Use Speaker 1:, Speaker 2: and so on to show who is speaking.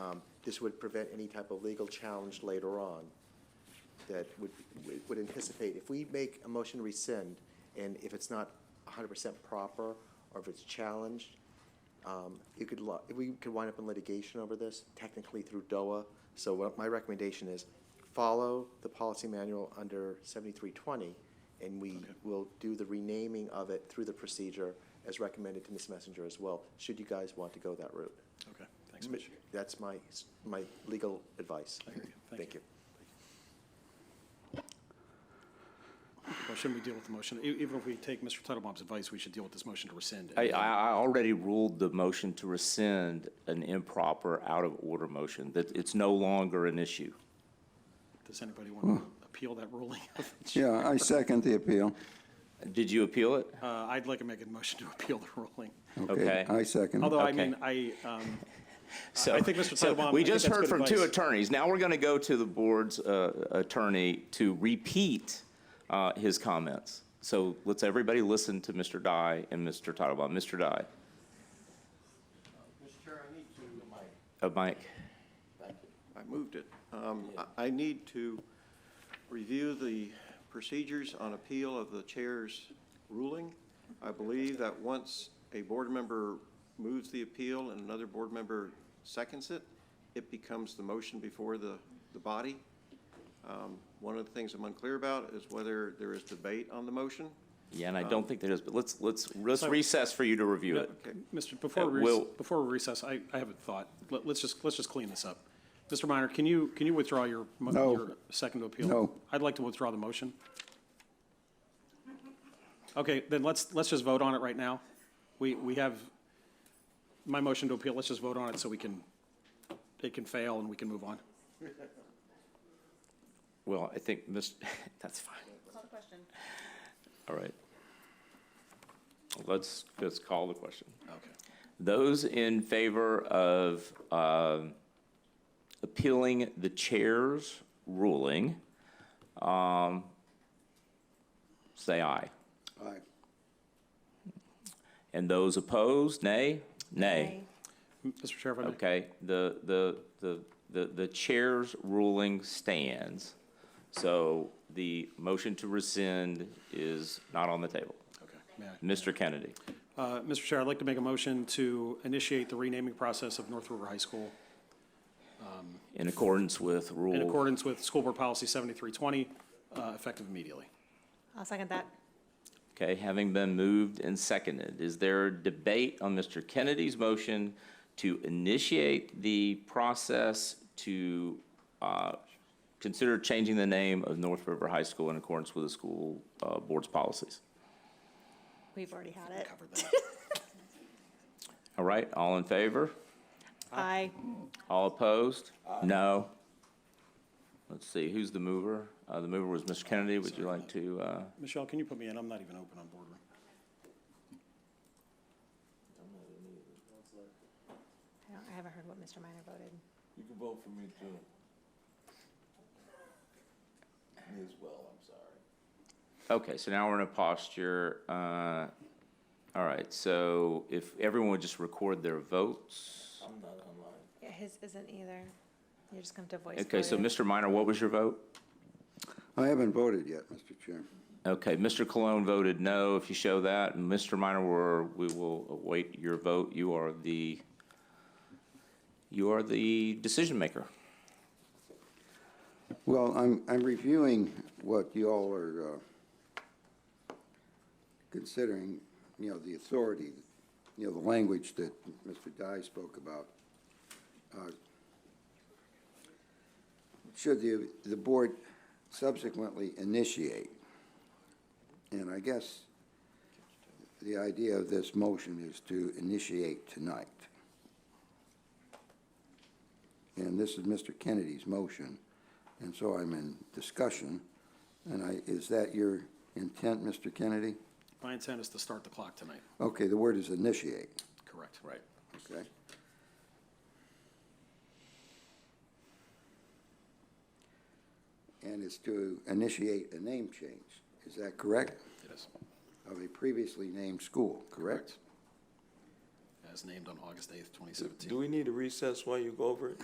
Speaker 1: um, This would prevent any type of legal challenge later on that would, we would anticipate. If we make a motion to rescind, and if it's not hundred percent proper, or if it's challenged, um, it could, lo- we could wind up in litigation over this, technically through DOA. So what my recommendation is, follow the policy manual under seventy-three twenty, and we will do the renaming of it through the procedure as recommended to Ms. Messenger as well, should you guys want to go that route.
Speaker 2: Okay, thanks, Mitch.
Speaker 1: That's my, s- my legal advice.
Speaker 2: I hear you. Thank
Speaker 1: Thank you.
Speaker 2: Well, shouldn't we deal with the motion? E- Even if we take Mr. Titlebaum's advice, we should deal with this motion to rescind.
Speaker 3: I, I I already ruled the motion to rescind an improper, out-of-order motion, that it's no longer an issue.
Speaker 2: Does anybody want to appeal that ruling?
Speaker 4: Yeah, I second the appeal.
Speaker 3: Did you appeal it?
Speaker 2: Uh, I'd like to make a motion to appeal the ruling.
Speaker 3: Okay.
Speaker 4: I second. it.
Speaker 2: Although, I
Speaker 3: Okay.
Speaker 2: mean, I, um,
Speaker 3: So-
Speaker 2: I think Mr.
Speaker 3: so
Speaker 2: Titlebaum- I
Speaker 3: We
Speaker 2: think
Speaker 3: just
Speaker 2: that's
Speaker 3: heard
Speaker 2: good
Speaker 3: from two
Speaker 2: advice.
Speaker 3: attorneys. Now we're going to go to the board's uh, attorney to repeat uh, his comments. So let's everybody listen to Mr. Dye and Mr. Titlebaum. Mr. Dye,
Speaker 5: Mr. Chair, I need to,
Speaker 3: a mic.
Speaker 5: I moved it. Um, I- I need to review the procedures on appeal of the chair's ruling. I believe that once a board member moves the appeal and another board member seconds it, it becomes the motion before the, the body. Um, One of the things I'm unclear about is whether there is debate on the motion.
Speaker 3: Yeah, and I
Speaker 2: Uh,
Speaker 3: don't think there is, but let's, let's, let's recess for you to review it.
Speaker 5: Okay.
Speaker 2: Mr., before
Speaker 3: Uh,
Speaker 2: we, rec-
Speaker 3: Will-
Speaker 2: before we recess, I, I have a thought. Let, let's just, let's just clean this up. Mr. Minor, can you, can you withdraw your, mo-
Speaker 4: No.
Speaker 2: your second to appeal?
Speaker 4: No.
Speaker 2: I'd like to withdraw the motion. Okay, then let's, let's just vote on it right now. We, we have my motion to appeal, let's just vote on it so we can, it can fail and we can move on.
Speaker 3: Well, I think, Ms. that's fine.
Speaker 6: Call the question.
Speaker 3: All right. Let's, let's call the question.
Speaker 2: Okay.
Speaker 3: Those in favor of um, appealing the chair's ruling, um, say aye.
Speaker 4: Aye.
Speaker 3: And those opposed, nay? Nay.
Speaker 2: Mr. Chair, if I may.
Speaker 3: Okay, the, the, the, the the chair's ruling stands. So the motion to rescind is not on the table.
Speaker 2: Okay, may I?
Speaker 3: Mr. Kennedy,
Speaker 2: Uh, Mr. Chair, I'd like to make a motion to initiate the renaming process of North River High School
Speaker 3: in accordance with Rule
Speaker 2: in accordance with School Board Policy 7320, uh, effective immediately.
Speaker 6: I'll second that.
Speaker 3: Okay, having been moved and seconded, is there debate on Mr. Kennedy's motion to initiate the process to uh, consider changing the name of North River High School in accordance with the school uh, board's policies?
Speaker 6: We've already had it.
Speaker 3: All right, all in favor?
Speaker 6: Aye.
Speaker 3: All opposed? No? Let's see, who's the mover? Uh, The mover was Mr. Kennedy. Would you like to, uh,
Speaker 2: Michelle, can you put me in? I'm not even open on boardroom.
Speaker 6: I don't- I haven't heard what Mr. Minor voted.
Speaker 7: You can vote for me too. Me as well, I'm sorry.
Speaker 3: okay, so now we're in a posture, uh, all right, so if everyone would just record their votes.
Speaker 7: I'm not online.
Speaker 6: Yeah, his isn't either. You're just going to voice.
Speaker 3: Okay, so
Speaker 6: vote it.
Speaker 3: Mr. Minor, what was your vote?
Speaker 4: I haven't voted yet, Mr. Chair.
Speaker 3: Okay, Mr. Cologne voted no, if you show that, and Mr. Minor, we're, we will await your vote. You are the, you are the decision maker.
Speaker 4: Well, I'm, I'm reviewing what you all are uh, considering, you know, the authority, you know, the language that Mr. Dye spoke about. Uh, Should the, the board subsequently initiate? And I guess the idea of this motion is to initiate tonight. And this is Mr. Kennedy's motion, and so I'm in discussion. And I, is that your intent, Mr. Kennedy?
Speaker 2: My intent is to start the clock tonight,
Speaker 4: Okay, the word is initiate,
Speaker 2: correct?
Speaker 3: Right.
Speaker 4: okay? And it's to initiate a name change, is that correct?
Speaker 2: It is,
Speaker 4: Of a previously named school, correct?
Speaker 2: as named on August 8th,
Speaker 7: Do
Speaker 2: 2017.
Speaker 7: we need a recess while you go over it?